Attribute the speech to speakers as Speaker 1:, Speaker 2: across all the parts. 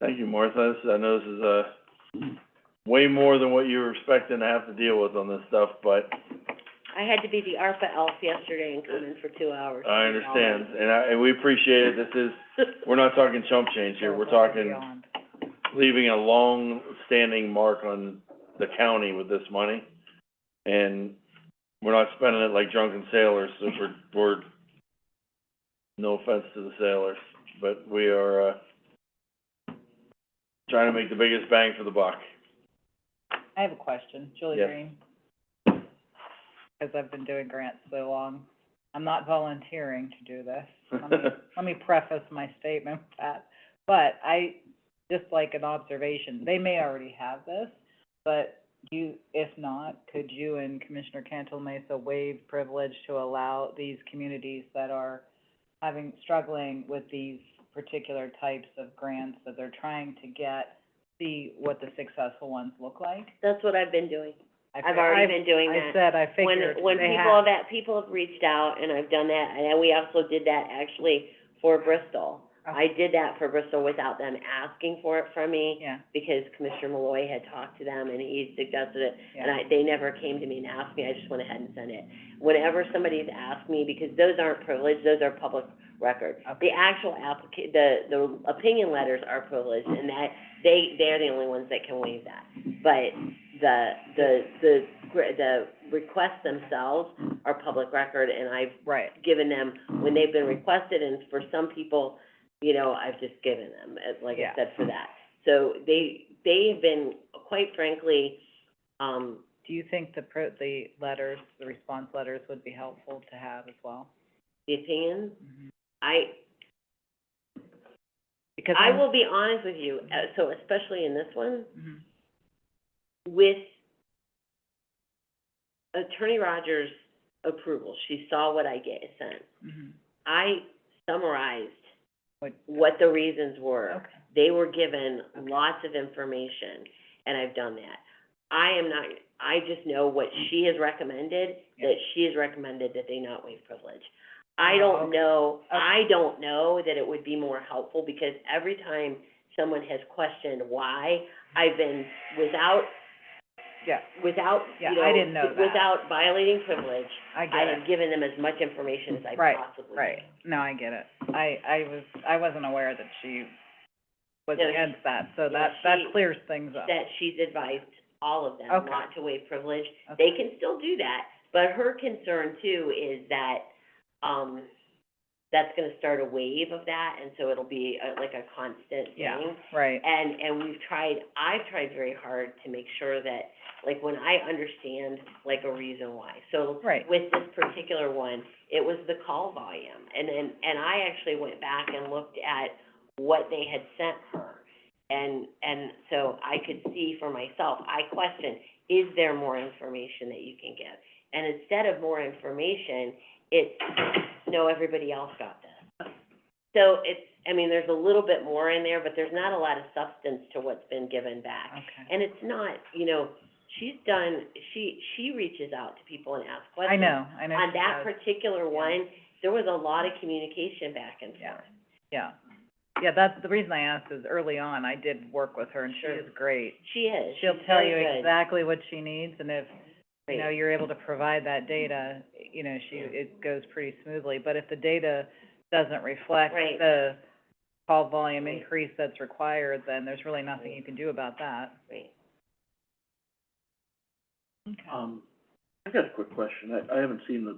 Speaker 1: Thank you, Martha. This- I know this is, uh, way more than what you were expecting to have to deal with on this stuff, but
Speaker 2: I had to be the ARPA elf yesterday and come in for two hours.
Speaker 1: I understand, and I, and we appreciate it. This is, we're not talking chump change here. We're talking leaving a long-standing mark on the county with this money. And we're not spending it like drunken sailors, so we're, we're, no offense to the sailors, but we are, uh, trying to make the biggest bang for the buck.
Speaker 3: I have a question, Julie
Speaker 1: Yes.
Speaker 3: Green. Because I've been doing grants so long, I'm not volunteering to do this. Let me, let me preface my statement with that. But I, just like an observation, they may already have this, but you, if not, could you and Commissioner Cantal Mesa waive privilege to allow these communities that are having, struggling with these particular types of grants that they're trying to get, see what the successful ones look like?
Speaker 2: That's what I've been doing.
Speaker 3: I
Speaker 2: I've
Speaker 3: fi-
Speaker 2: already
Speaker 3: I-
Speaker 2: been doing
Speaker 3: I
Speaker 2: that.
Speaker 3: said, I
Speaker 2: When,
Speaker 3: figured
Speaker 2: when
Speaker 3: they
Speaker 2: people
Speaker 3: had.
Speaker 2: have that, people have reached out and I've done that, and we also did that actually for Bristol.
Speaker 3: Oh.
Speaker 2: I did that for Bristol without them asking for it from me
Speaker 3: Yeah,
Speaker 2: because Commissioner Malloy had talked to them and he suggested it. And
Speaker 3: yeah,
Speaker 2: I, they never came to me and asked me, I just went ahead and sent it. Whenever somebody's asked me, because those aren't privileged, those are public record.
Speaker 3: Okay.
Speaker 2: The actual applica- the, the opinion letters are privileged, and that, they, they're the only ones that can waive that. But the, the, the, gr- the requests themselves are public record, and I've
Speaker 3: right,
Speaker 2: given them when they've been requested, and for some people, you know, I've just given them, uh, like I
Speaker 3: Yeah.
Speaker 2: said, for that. So they, they have been, quite frankly, um,
Speaker 3: do you think the pro, the letters, the response letters would be helpful to have as well?
Speaker 2: the opinions. I,
Speaker 3: Because
Speaker 2: I
Speaker 3: I'm-
Speaker 2: will be honest with you, uh, so especially in this one,
Speaker 3: Mhm.
Speaker 2: with Attorney Rogers' approval, she saw what I get sent.
Speaker 3: Mhm.
Speaker 2: I summarized
Speaker 3: What-
Speaker 2: what the reasons were.
Speaker 3: Okay,
Speaker 2: They were given
Speaker 3: Okay.
Speaker 2: lots of information, and I've done that. I am not, I just know what she has recommended,
Speaker 3: Mm-hmm. Yeah.
Speaker 2: that she has recommended that they not waive privilege. I
Speaker 3: Oh,
Speaker 2: don't
Speaker 3: okay.
Speaker 2: know, I don't know that it would be more helpful, because every time someone has questioned why, I've been without,
Speaker 3: yeah,
Speaker 2: without,
Speaker 3: Yeah,
Speaker 2: you know,
Speaker 3: I didn't know that.
Speaker 2: without violating privilege,
Speaker 3: I
Speaker 2: I
Speaker 3: get
Speaker 2: have
Speaker 3: it,
Speaker 2: given them as much information as I
Speaker 3: Right,
Speaker 2: possibly can.
Speaker 3: right, no, I get it. I, I was, I wasn't aware that she was
Speaker 2: No, she-
Speaker 3: against that, so
Speaker 2: yeah,
Speaker 3: that, that
Speaker 2: she-
Speaker 3: clears things up.
Speaker 2: that she's advised all of them
Speaker 3: Okay.
Speaker 2: not to waive privilege.
Speaker 3: Okay.
Speaker 2: They can still do that, but her concern too is that, um, that's gonna start a wave of that, and so it'll be a- like a constant thing.
Speaker 3: Yeah, right,
Speaker 2: And, and we've tried, I've tried very hard to make sure that, like, when I understand, like, a reason why. So
Speaker 3: Right.
Speaker 2: with this particular one, it was the call volume. And then, and I actually went back and looked at what they had sent her. And, and so I could see for myself, I questioned, is there more information that you can give? And instead of more information, it's, no, everybody else got this. So it's, I mean, there's a little bit more in there, but there's not a lot of substance to what's been given back.
Speaker 3: okay.
Speaker 2: And it's not, you know, she's done, she, she reaches out to people and asks
Speaker 3: I
Speaker 2: questions.
Speaker 3: know, I know
Speaker 2: On
Speaker 3: she
Speaker 2: that
Speaker 3: does.
Speaker 2: particular one, there was a lot of communication back and
Speaker 3: Yeah.
Speaker 2: forth.
Speaker 3: Yeah, yeah, that's, the reason I asked is early on, I did work with her and she
Speaker 2: Sure.
Speaker 3: was great.
Speaker 2: She is, she's
Speaker 3: She'll tell you
Speaker 2: very good.
Speaker 3: exactly what she needs, and if, you know,
Speaker 2: Great.
Speaker 3: you're able to provide that data, you know, she,
Speaker 2: Yeah.
Speaker 3: it goes pretty smoothly. But if the data doesn't reflect
Speaker 2: Right.
Speaker 3: the call volume
Speaker 2: Right.
Speaker 3: increase that's required, then there's really nothing you can do about that.
Speaker 2: Great.
Speaker 3: Okay.
Speaker 4: Um, I got a quick question. I, I haven't seen the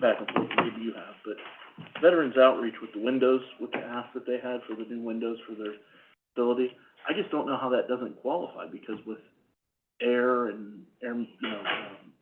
Speaker 4: back and forth, maybe you have, but Veterans Outreach with the windows, with the ask that they had for the new windows for their facility, I just don't know how that doesn't qualify, because with air and air, you know, um,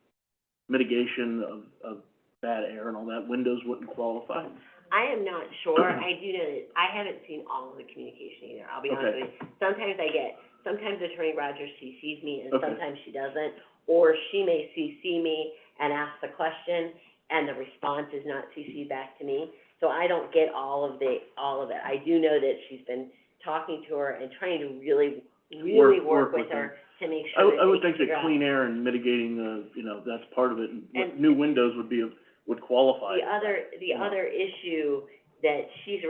Speaker 4: mitigation of, of bad air and all that, windows wouldn't qualify.
Speaker 2: I am not sure, I do know that, I haven't seen all of the communication either, I'll be honest
Speaker 4: Okay.
Speaker 2: with you. Sometimes I get, sometimes Attorney Rogers CCs me and
Speaker 4: Okay.
Speaker 2: sometimes she doesn't, or she may CC me and ask the question and the response is not CC'd back to me. So I don't get all of the, all of it. I do know that she's been talking to her and trying to really, really
Speaker 4: Work- work
Speaker 2: work with
Speaker 4: with
Speaker 2: her to make
Speaker 4: I,
Speaker 2: sure
Speaker 4: would- I
Speaker 2: that
Speaker 4: would
Speaker 2: they
Speaker 4: think
Speaker 2: figure
Speaker 4: that
Speaker 2: out.
Speaker 4: clean air and mitigating the, you know, that's part of it, and what
Speaker 2: And-
Speaker 4: new windows would be, a- would qualify.
Speaker 2: The other, the
Speaker 4: Yeah.
Speaker 2: other issue that she's